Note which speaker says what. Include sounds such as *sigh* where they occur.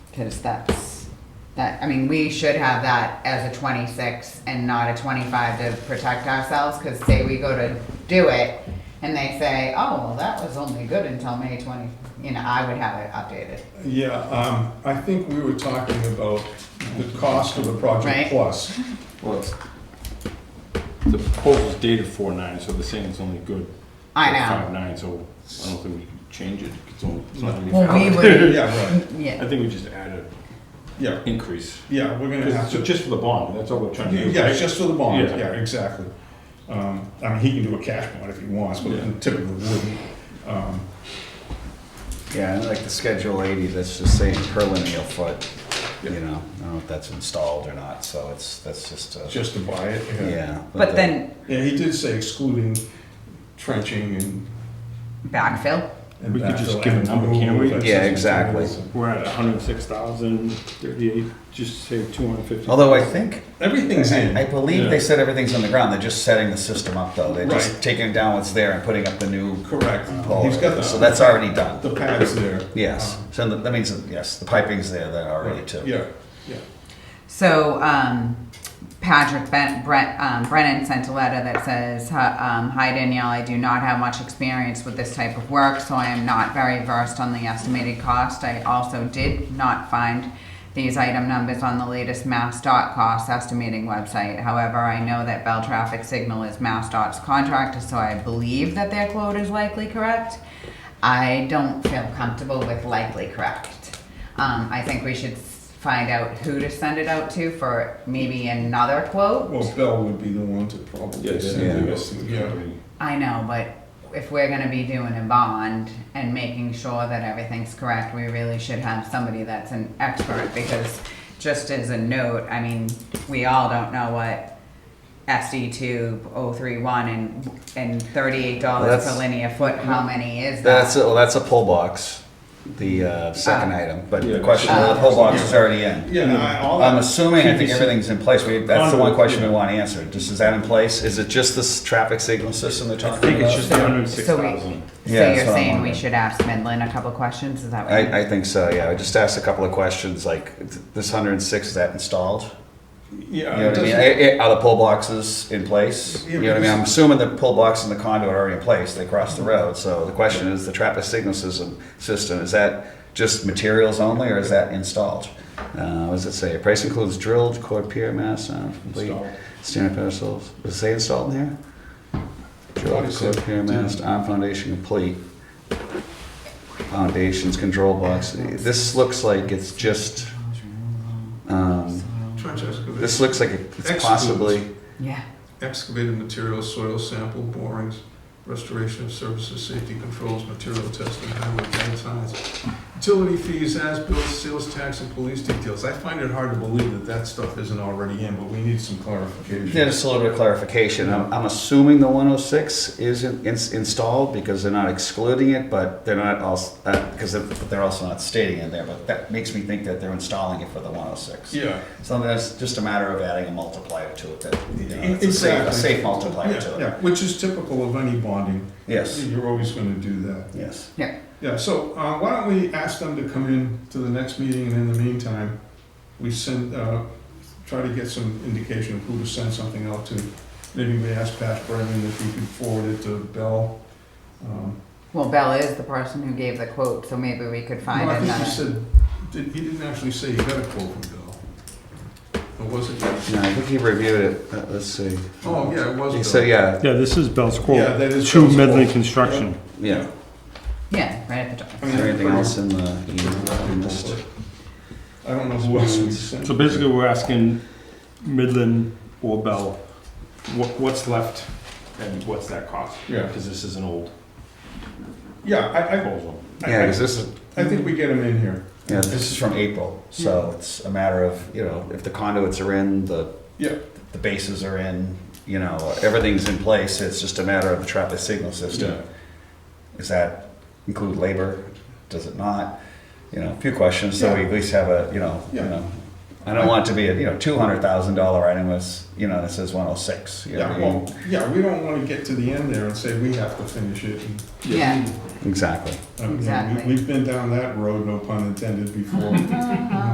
Speaker 1: Cause that's, that, I mean, we should have that as a twenty-six and not a twenty-five to protect ourselves, cause say we go to do it and they say, oh, well, that was only good until May twenty, you know, I would have it updated.
Speaker 2: Yeah, um, I think we were talking about the cost of the project
Speaker 1: Right.
Speaker 3: *laughs*
Speaker 2: plus.
Speaker 3: Well, it's, the proposal's dated four nine, so the saying's only good.
Speaker 1: I
Speaker 3: for
Speaker 1: know.
Speaker 3: Five nine, so I don't think we can change it, it's only, it's not gonna be
Speaker 1: Well, we
Speaker 3: valid.
Speaker 1: would-
Speaker 2: Yeah, right,
Speaker 3: *laughs* I
Speaker 1: Yeah,
Speaker 3: think we just add an
Speaker 2: yeah,
Speaker 3: increase,
Speaker 2: yeah, we're gonna have
Speaker 3: Just- so
Speaker 2: to,
Speaker 3: just for the bond, that's all we're trying to do.
Speaker 2: yeah, it's just for the bond,
Speaker 3: Yeah.
Speaker 2: yeah, exactly. Um, I mean, he can do a cash bond if he wants, but
Speaker 3: Yeah.
Speaker 2: typically wouldn't. Um,
Speaker 4: Yeah, and like the Schedule 80, that's just saying per lineal foot, you know, I don't know if that's installed or not, so it's, that's just a,
Speaker 2: Just to buy it, yeah.
Speaker 4: yeah.
Speaker 1: but
Speaker 4: the-
Speaker 1: then
Speaker 2: Yeah, he did say excluding trenching and.
Speaker 1: backfill,
Speaker 2: and
Speaker 3: We could just
Speaker 2: backfill
Speaker 3: give a
Speaker 2: and
Speaker 3: number, can't we?
Speaker 2: removal.
Speaker 4: Yeah, exactly.
Speaker 3: We're at hundred and six thousand thirty-eight, just say two hundred and fifty.
Speaker 4: Although I think,
Speaker 2: Everything's in.
Speaker 4: I believe
Speaker 3: Yeah.
Speaker 4: they said everything's on the ground, they're just setting the system up though. They're
Speaker 2: Right.
Speaker 4: just taking down what's there and putting up the new
Speaker 2: Correct.
Speaker 4: pole.
Speaker 2: He's got the.
Speaker 4: So that's already done.
Speaker 2: The pads there. Um,
Speaker 4: Yes, so that that means, that, yes, the piping's there then already too.
Speaker 2: Yeah, yeah.
Speaker 1: So um, Patrick ben- Brent, um, Brennan sent a letter that says, "Hi- um, "Hi Danielle, I do not have much experience with this type of work, so I am not very versed on the estimated cost. I also did not find." These item numbers on the latest MassDOT cost estimating website. However, I know that Bell Traffic Signal is MassDOT's contractor, so I believe that their quote is likely correct. I don't feel comfortable with likely correct. Um, I think we should s- find out who to send it out to for maybe another quote.
Speaker 2: Well, Bell would be the one to probably send the estimate, yeah.
Speaker 1: I know, but if we're gonna be doing a bond and making sure that everything's correct, we really should have somebody that's an expert, because just as a note, I mean, we all don't know what SD tube, oh three one, and, and thirty-eight dollars per
Speaker 4: That's-
Speaker 1: linear foot, how many is that?
Speaker 4: That's, well, that's a pole box, the uh, second
Speaker 1: Ah.
Speaker 4: item, but
Speaker 3: Yeah.
Speaker 4: the question, well, the pole box is already in.
Speaker 2: Yeah, I- all
Speaker 4: I'm
Speaker 2: that,
Speaker 4: assuming, I think everything's in place, We- that's the one
Speaker 3: Conduit,
Speaker 4: question we
Speaker 3: yeah.
Speaker 4: want answered, just is that in place? Is it just this traffic signal system they're
Speaker 3: I
Speaker 4: talking about?
Speaker 3: think it's just
Speaker 1: So-
Speaker 3: hundred and six
Speaker 1: so we-
Speaker 3: thousand.
Speaker 1: So
Speaker 4: Yeah, that's
Speaker 1: you're
Speaker 4: what I'm
Speaker 1: saying we
Speaker 4: wondering.
Speaker 1: should ask Midland a couple questions, is that what?
Speaker 4: I, I think so, yeah, I just asked a couple of questions, like, th- this hundred and six, is that installed?
Speaker 2: yeah.
Speaker 4: You know
Speaker 2: Uh, it
Speaker 4: what I mean,
Speaker 2: doesn't-
Speaker 4: Eh, eh, are the pole boxes in place?
Speaker 2: Yeah,
Speaker 4: You know what I mean,
Speaker 2: because-
Speaker 4: I'm assuming the pole box and the conduit are already in place, they cross the road, so the question is, the traffic signal system, system, is that just materials only, or is that installed? Uh, what does it say, price includes drilled, core pier mass, uh, complete,
Speaker 2: Installed.
Speaker 4: standard pedestals, does it say installed in there?
Speaker 2: Thought it
Speaker 4: Drilled,
Speaker 2: said-
Speaker 4: core pier mast, arm foundation complete. Foundations, control box, this looks like it's just, um,
Speaker 2: Trench excavation,
Speaker 4: this looks like it's possibly.
Speaker 1: Yeah,
Speaker 2: excavated materials, soil sample borings, restoration of services, safety controls, material testing, highway gang signs, utility fees, as-built, sales tax, and police details. I find it hard to believe that that stuff isn't already in, but we need some clarification.
Speaker 4: Yeah, just a little bit of clarification. I'm, I'm assuming the 106 is in, ins- installed because they're not excluding it, but they're not also, because they're, but they're also not stating in there, but that makes me think that they're installing it for the 106.
Speaker 2: Yeah.
Speaker 4: So that's just a matter of adding a multiplier to it, that, you know, it's a safe, a
Speaker 2: E-, Exactly.
Speaker 4: safe multiplier
Speaker 2: Yeah,
Speaker 4: to it.
Speaker 2: yeah, Which is typical of any bonding.
Speaker 4: Yes,
Speaker 2: You're always gonna do that.
Speaker 4: yes.
Speaker 1: yeah,
Speaker 2: Yeah, so uh, why don't we ask them to come in to the next meeting, and in the meantime, we send, uh, try to get some indication of who to send something out to. Maybe we ask Pat Brennan if he could forward it to Bell. Um,
Speaker 1: well, Bella is the person who gave the quote, so maybe we could find
Speaker 2: no, I think he
Speaker 1: another.
Speaker 2: said, did- he didn't actually say he got a quote from Bell. Or was it?
Speaker 4: No, I think he reviewed it, Uh, let's see.
Speaker 2: Oh, yeah, it was Bell.
Speaker 4: So, yeah,
Speaker 5: Yeah, this is Bell's
Speaker 2: Yeah,
Speaker 5: quote,
Speaker 2: that is.
Speaker 5: to
Speaker 2: Bell's quote.
Speaker 5: Midland Construction.
Speaker 4: yeah.
Speaker 1: Yeah, right at the top.
Speaker 2: I
Speaker 4: Is
Speaker 2: mean,
Speaker 4: there anything
Speaker 2: pretty-
Speaker 4: else in the email we missed?
Speaker 2: I don't know who else we sent.
Speaker 3: So basically, we're asking Midland or Bell, what, what's left and what's that cost?
Speaker 2: Yeah.
Speaker 3: Because this is an old
Speaker 2: Yeah, I, I,
Speaker 3: proposal.
Speaker 4: Yeah,
Speaker 2: I,
Speaker 4: 'cause this is,
Speaker 2: I think we get him in here.
Speaker 4: Yeah, this is from April, so it's a matter of, you know, if the conduits are in, the,
Speaker 2: Yeah,
Speaker 4: the bases are in, you know, everything's in place, it's just a matter of the traffic signal
Speaker 2: Yeah.
Speaker 4: system. Does that include labor? Does it not? You know, a few questions, so we at least have a, you know, you
Speaker 2: Yeah.
Speaker 4: know, I don't want it to be a, you know, two hundred thousand dollar item that's, you know, that says one oh six.
Speaker 2: Yeah, well, yeah, we don't wanna get to the end there and say we have to finish it. and-
Speaker 1: Yeah.
Speaker 4: Exactly.
Speaker 2: I mean, we-
Speaker 1: Exactly.
Speaker 2: *laughs* We've been down that road, no pun intended, before.